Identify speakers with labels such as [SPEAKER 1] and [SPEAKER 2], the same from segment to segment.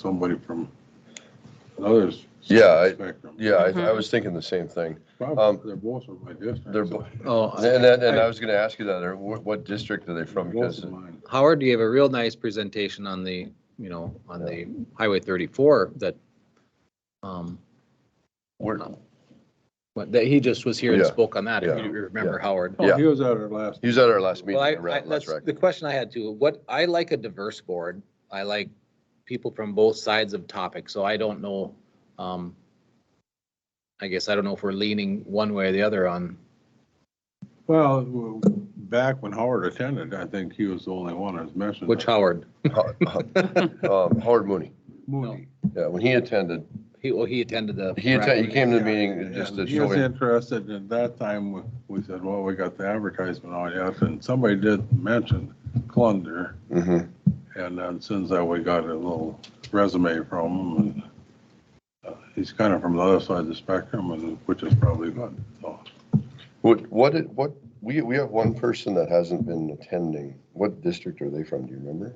[SPEAKER 1] somebody from another.
[SPEAKER 2] Yeah, I-
[SPEAKER 1] Spectrum.
[SPEAKER 2] Yeah, I, I was thinking the same thing. um,
[SPEAKER 1] Probably, they're both from my district.
[SPEAKER 2] They're,
[SPEAKER 1] so-
[SPEAKER 2] bo-
[SPEAKER 3] Oh, I-
[SPEAKER 2] and that, and I was gonna ask you that, or what, what district are they from?
[SPEAKER 1] Both
[SPEAKER 2] Because,
[SPEAKER 1] of mine.
[SPEAKER 3] Howard, you have a real nice presentation on the, you know, on the Highway 34 that, um,
[SPEAKER 2] we're,
[SPEAKER 3] what- that he just was here and
[SPEAKER 2] Yeah,
[SPEAKER 3] spoke on that, if
[SPEAKER 2] yeah,
[SPEAKER 3] you remember, Howard.
[SPEAKER 1] Oh,
[SPEAKER 2] Yeah.
[SPEAKER 1] He was at our last,
[SPEAKER 2] he was at our last meeting.
[SPEAKER 3] Well, I, I,
[SPEAKER 2] right,
[SPEAKER 3] that's
[SPEAKER 2] right.
[SPEAKER 3] the question I had too. What, I like a diverse board. I like people from both sides of topics, so I don't know, um, I guess I don't know if we're leaning one way or the other on,
[SPEAKER 1] well, w- back when Howard attended, I think he was the only one that was mentioned.
[SPEAKER 3] which
[SPEAKER 2] Mm-hmm.
[SPEAKER 3] Howard,
[SPEAKER 2] Um, Howard Mooney,
[SPEAKER 1] Mooney.
[SPEAKER 2] yeah, when he attended,
[SPEAKER 3] he, well, he attended the.
[SPEAKER 2] he attended, he came to the
[SPEAKER 1] Yeah,
[SPEAKER 2] meeting just to
[SPEAKER 1] and He
[SPEAKER 2] show
[SPEAKER 1] was
[SPEAKER 2] him.
[SPEAKER 1] interested, and at that time, we- we said, well, we got the advertisement on yet, and somebody did mention Clunder.
[SPEAKER 2] Mhm.
[SPEAKER 1] And then since that, we got a little resume from him and uh, he's kind of from the other side of the spectrum and which is probably uh, good. So
[SPEAKER 2] What, what, it- what, we, we have one person that hasn't been attending. What district are they from? Do you remember?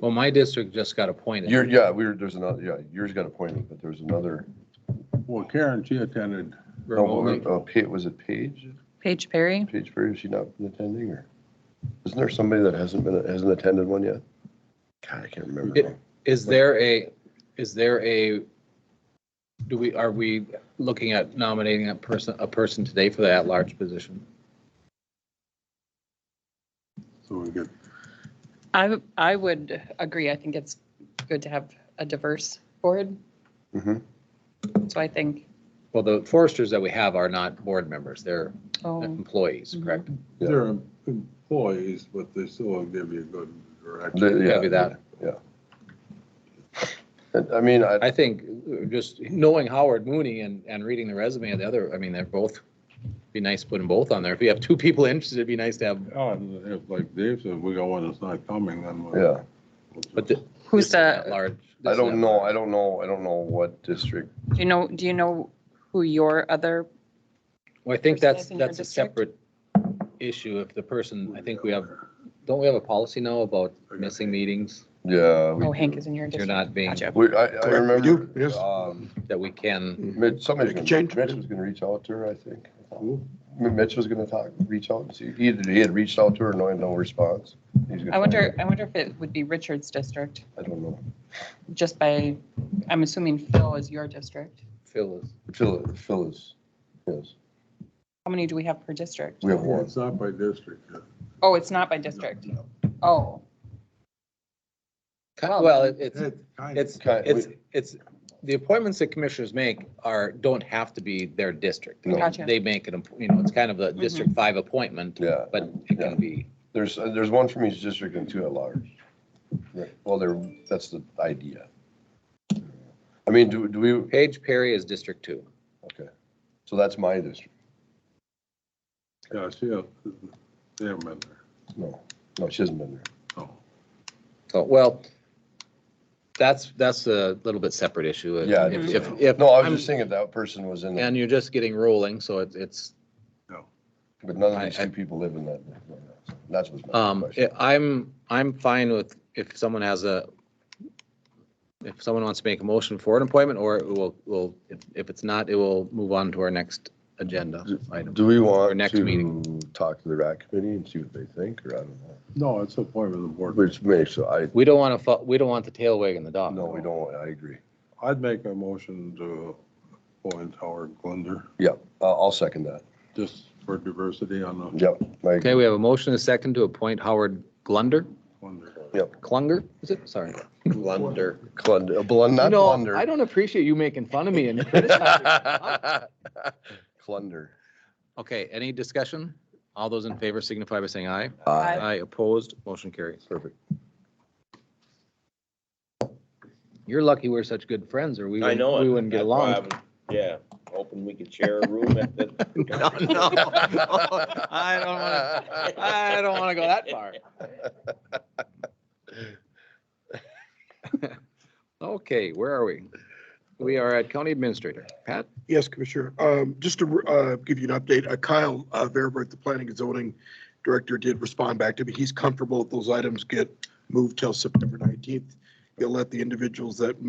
[SPEAKER 3] Well, my district just got appointed.
[SPEAKER 2] You're, yeah, we were, there's another, yeah, yours got appointed, but there's another.
[SPEAKER 1] Well, Karen, she attended,
[SPEAKER 2] no, what
[SPEAKER 3] remotely.
[SPEAKER 2] was- oh, Pa- Was it Paige?
[SPEAKER 4] Paige Perry?
[SPEAKER 2] Paige Perry, has she not been attending or? Isn't there somebody that hasn't been, hasn't attended one yet? God, I can't remember.
[SPEAKER 3] It-
[SPEAKER 2] now.
[SPEAKER 3] Is there a, is there a, do we, are we looking at nominating a person, a person today for the at-large position?
[SPEAKER 1] so we get,
[SPEAKER 4] I, I would agree. I think it's good to have a diverse board.
[SPEAKER 2] Mhm.
[SPEAKER 4] So I think,
[SPEAKER 3] Well, the foresters that we have are not board members, they're
[SPEAKER 4] oh,
[SPEAKER 3] employees, correct?
[SPEAKER 2] Yeah.
[SPEAKER 1] they're em- employees, but they still give you a good direction.
[SPEAKER 2] The- yeah,
[SPEAKER 3] Could be that.
[SPEAKER 2] And, I mean, I,
[SPEAKER 3] I think uh, just knowing Howard Mooney and, and reading the resume of the other, I mean, they're both, be nice to put them both on there. If you have two people interested, it'd be nice to have,
[SPEAKER 1] Oh, and if, like Dave said, we got one that's not coming, then. we'll-
[SPEAKER 2] yeah,
[SPEAKER 1] we'll just-
[SPEAKER 3] but. the-
[SPEAKER 4] who's
[SPEAKER 3] this is an
[SPEAKER 4] the,
[SPEAKER 3] at-large- this
[SPEAKER 2] I
[SPEAKER 3] is
[SPEAKER 2] don't
[SPEAKER 3] an
[SPEAKER 2] know,
[SPEAKER 3] at-large.
[SPEAKER 2] I don't know, I don't know what district.
[SPEAKER 4] do you know, do you know who your other,
[SPEAKER 3] Well, I think
[SPEAKER 4] person
[SPEAKER 3] that's,
[SPEAKER 4] in your
[SPEAKER 3] that's a
[SPEAKER 4] district?
[SPEAKER 3] separate issue if the person, I think we have, don't we have a policy now about missing meetings?
[SPEAKER 2] Yeah. we
[SPEAKER 4] oh, Hank
[SPEAKER 2] do.
[SPEAKER 4] is in your
[SPEAKER 3] You're
[SPEAKER 4] district?
[SPEAKER 3] not being,
[SPEAKER 4] Gotcha.
[SPEAKER 2] We, I, I
[SPEAKER 5] we
[SPEAKER 2] remember,
[SPEAKER 5] do, yes.
[SPEAKER 2] um,
[SPEAKER 3] that we can,
[SPEAKER 2] Mitch, somebody's,
[SPEAKER 5] Make a
[SPEAKER 2] gonna-
[SPEAKER 5] change.
[SPEAKER 2] Mitch was gonna reach out to her, I think.
[SPEAKER 1] Who?
[SPEAKER 2] M- Mitch was gonna talk, reach out and see, either he had reached out to her, no, no response. He's gonna
[SPEAKER 4] I wonder,
[SPEAKER 2] find
[SPEAKER 4] I wonder if it would be Richard's district,
[SPEAKER 2] out. I don't know.
[SPEAKER 4] just by, I'm assuming Phil is your district.
[SPEAKER 3] Phil is,
[SPEAKER 2] Phil, Phil is, yes,
[SPEAKER 4] How many do we have per district?
[SPEAKER 2] we have
[SPEAKER 1] Yeah,
[SPEAKER 2] one.
[SPEAKER 1] It's not by district. yeah.
[SPEAKER 4] Oh, it's not by district.
[SPEAKER 1] No,
[SPEAKER 4] Oh,
[SPEAKER 3] Ki- well, it- it's,
[SPEAKER 1] It kind of-
[SPEAKER 3] it's,
[SPEAKER 2] Kind-
[SPEAKER 3] it's, it's, the appointments that commissioners make are, don't have to be their district.
[SPEAKER 2] No.
[SPEAKER 4] Gotcha. Mm-hmm.
[SPEAKER 3] They make it, a- you know, it's kind of a District Five appointment,
[SPEAKER 2] Yeah,
[SPEAKER 3] but it can be,
[SPEAKER 2] there's, uh, there's one from each district and two at large. Right. Well, there, that's the idea. I mean, do, do we,
[SPEAKER 3] Paige Perry is District Two.
[SPEAKER 2] okay, so that's my district.
[SPEAKER 1] Yeah, she, uh, they haven't been there.
[SPEAKER 2] No, no, she hasn't been there.
[SPEAKER 1] Oh,
[SPEAKER 3] So, well, that's, that's a little bit separate issue.
[SPEAKER 2] Yeah.
[SPEAKER 3] If, if- if.
[SPEAKER 2] No, I was
[SPEAKER 3] I'm-
[SPEAKER 2] just thinking if that person was in there,
[SPEAKER 3] And you're just getting rolling, so it's, it's,
[SPEAKER 2] but none of
[SPEAKER 3] I-
[SPEAKER 2] these
[SPEAKER 3] I-
[SPEAKER 2] two people live in that. That's what's my
[SPEAKER 3] um,
[SPEAKER 2] question.
[SPEAKER 3] I'm, I'm fine with if someone has a, if someone wants to make a motion for an appointment, or it will, will, if, if it's not, it will move on to our next agenda item.
[SPEAKER 2] Do we
[SPEAKER 3] Our
[SPEAKER 2] want
[SPEAKER 3] next meeting.
[SPEAKER 2] to talk to the RAC committee and see what they think, or I don't know?
[SPEAKER 1] No, it's appointment of the board.
[SPEAKER 2] Which makes, so I,
[SPEAKER 3] We don't want to, we don't want the tail wagging the dog.
[SPEAKER 2] no, we don't, I agree.
[SPEAKER 1] I'd make a motion to appoint Howard Glunder,
[SPEAKER 2] Yeah, I'll, I'll second that.
[SPEAKER 1] just for diversity on the
[SPEAKER 2] Yep. I agree.
[SPEAKER 3] Okay, we have a motion and a second to appoint Howard Glunder,
[SPEAKER 1] Glunder.
[SPEAKER 3] Klunger, is it? Sorry. Glunder.
[SPEAKER 2] Clunder, blun- not
[SPEAKER 3] No,
[SPEAKER 2] blunder.
[SPEAKER 3] I don't appreciate you making fun of me and
[SPEAKER 2] Clunder.
[SPEAKER 3] Okay, any discussion? All those in favor signify by saying aye.
[SPEAKER 4] Aye.
[SPEAKER 3] Aye opposed, motion carries.
[SPEAKER 2] Uh, Perfect.
[SPEAKER 3] You're lucky we're such good friends or we
[SPEAKER 6] I
[SPEAKER 3] wouldn't,
[SPEAKER 6] know it.
[SPEAKER 3] we wouldn't get
[SPEAKER 6] That's why
[SPEAKER 3] along.
[SPEAKER 6] I'm- Yeah, hoping we could share a room at the.
[SPEAKER 3] No, no, no, I don't wanna- I don't want to go that far. Okay, where are we? We are at county administrator. Pat?
[SPEAKER 5] Yes, Commissioner. Um, Just to uh, give you an update, uh, Kyle uh, Verbrick, the Planning and Zoning Director, did respond back to me. He's comfortable if those items get moved till September 19th. He'll let the individuals that